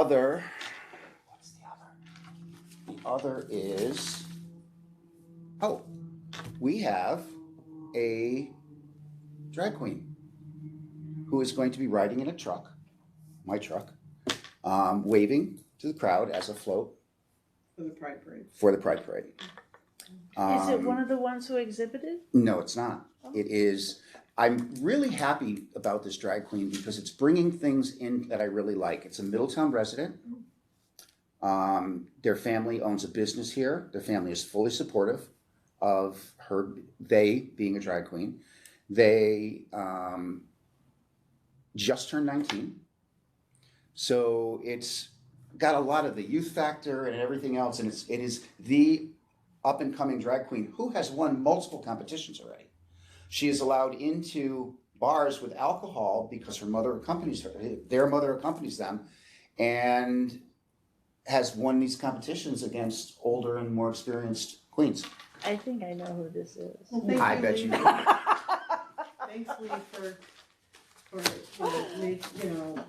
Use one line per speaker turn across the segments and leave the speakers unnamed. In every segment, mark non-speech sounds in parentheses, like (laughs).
other. What's the other? The other is, oh, we have a drag queen who is going to be riding in a truck, my truck, um, waving to the crowd as a float
for the Pride Parade.
for the Pride Parade.
Is it
Um,
one of the ones who exhibited?
No, it's not. It is, I'm really happy about this drag queen because it's bringing things in that I really like. It's a Middletown resident. Um, their family owns a business here. Their family is fully supportive of her, they being a drag queen. They um, just turned 19. So it's got a lot of the youth factor and everything else. And it's, it is the up and coming drag queen who has won multiple competitions already. She is allowed into bars with alcohol because her mother accompanies her, their mother accompanies them, and has won these competitions against older and more experienced queens.
I think I know who this is.
Well, thank
I bet
(laughs)
you
Lee.
do.
Thanks Lee for, for, for make, you know,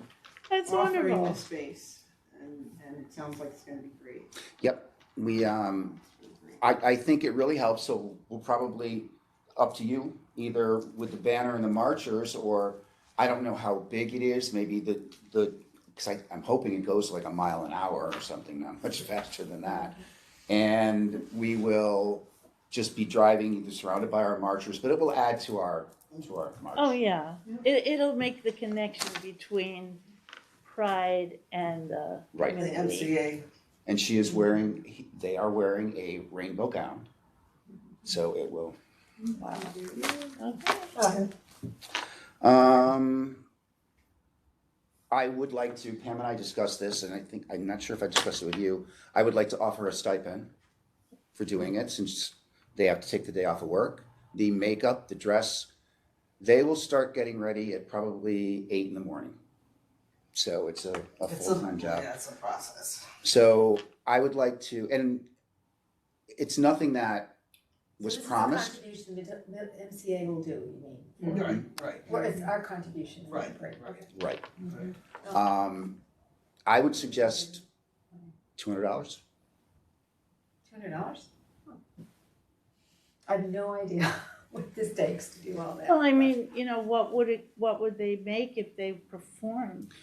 That's
offering
wonderful.
this space. And, and it sounds like it's gonna be great.
Yep, we, um,
It's gonna be great.
I, I think it really helps, so we'll probably, up to you, either with the banner and the marchers, or I don't know how big it is, maybe the, the, cause I, I'm hoping it goes like a mile an hour or something, not much (laughs) faster than that. And we will just be driving, either surrounded by our marchers, but it will add to our, to our march.
Oh, yeah.
Yeah.
It, it'll make the connection between pride and uh,
Right.
The
community.
MCA,
And she is wearing, he- they are wearing a rainbow gown, so it will
Wow.
Um, I would like to, Pam and I discussed this, and I think, I'm not sure if I discussed it with you. I would like to offer a stipend for doing it, since they have to take the day off of work. The makeup, the dress, they will start getting ready at probably eight in the morning. So it's a, a
It's
full-time job.
Yeah, it's a process.
So I would like to, and it's nothing that was promised.
This is the contribution the the MCA will do, you mean?
Mm-hmm.
Mm-hmm.
Right, right.
Or it's our contribution?
Right,
Right,
right.
okay.
Right.
Right.
Um, I would suggest two hundred dollars.
Two hundred dollars? I have no idea (laughs) what this takes to do all that.
Well, I mean, you know, what would it, what would they make if they performed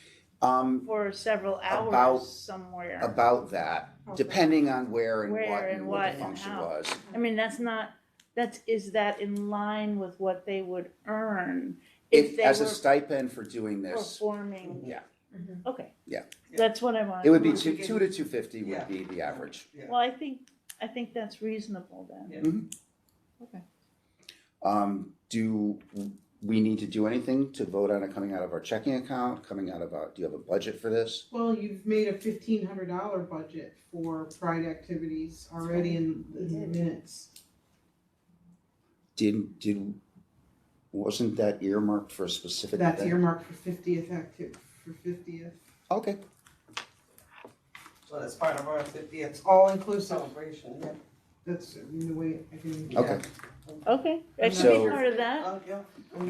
Um,
for several
About-
hours somewhere?
about that, depending on where and what
Where
and
and
what
what
the
and
function
how.
was.
I mean, that's not, that's, is that in line with what they would earn if
If,
they
as a
were
stipend for doing this,
performing?
yeah,
Mm-hmm.
Okay.
Yeah.
That's what I wanted.
it would be
to know.
two, two to two fifty would
Yeah.
be the average.
Yeah.
Well, I think, I think that's reasonable then.
Um, do we need to do anything to vote on it coming out of our checking account, coming out of our, do you have a budget for this?
well, you've made a fifteen hundred dollar budget for Pride activities already in, in the minutes.
Did, did, wasn't that earmarked for a specific event?
That's earmarked for fiftieth active, for fiftieth.
Okay,
Well, it's part of our fiftieth
It's all inclusive.
celebration, yeah.
That's I mean, the way I can.
okay,
Okay, that should
So-
be part of that.
Oh, yeah.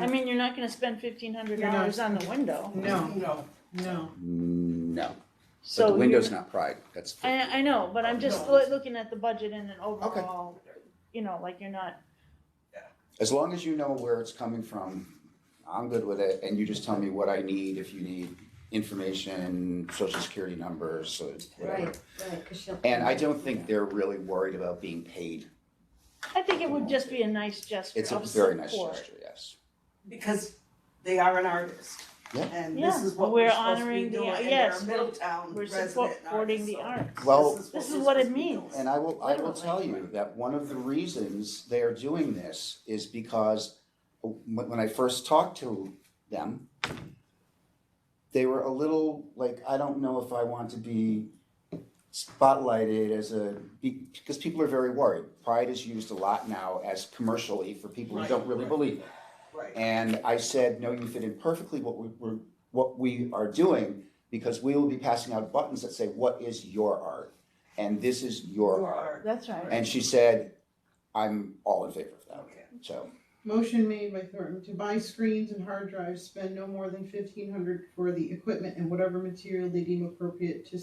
I mean, you're not gonna spend fifteen hundred dollars on the window,
No,
No.
no.
no, but
so.
the window's
you're-
not pride, that's.
I, I know, but I'm just
No.
loo- looking at the budget and an overall, you know, like you're not,
As long as you know where it's coming from, I'm good with it, and you just tell me what I need, if you need information, social security numbers, so it's whatever.
Right, right, cause she'll.
And I don't think they're really worried about being paid.
I think it would just be a nice gesture of
It's a
support.
very nice gesture, yes.
Because they are an artist.
Yeah.
And this
Yeah.
is what
We're
we're supposed to be
honoring the-
doing, and they're
yes,
a
we're-
Middletown
We're
resident
supporting the
artist,
arts.
so
Well-
This is
we're
what it
supposed to be
means.
doing.
And I will, I will tell you that one of the reasons they are doing this is because when, when I first talked to them, they were a little like, I don't know if I want to be spotlighted as a, be- because people are very worried. Pride is used a lot now as commercially for people who don't really
Right, right.
believe it.
Right,
And I said, no, you fit in perfectly what we, we're, what we are doing, because we will be passing out buttons that say, what is your art? And this is your
you
art.
are,
That's right.
And she said, I'm all in favor of that.
okay.
So
Motion made by Thornton to buy screens and hard drives, spend no more than fifteen hundred for the equipment and whatever material they deem appropriate to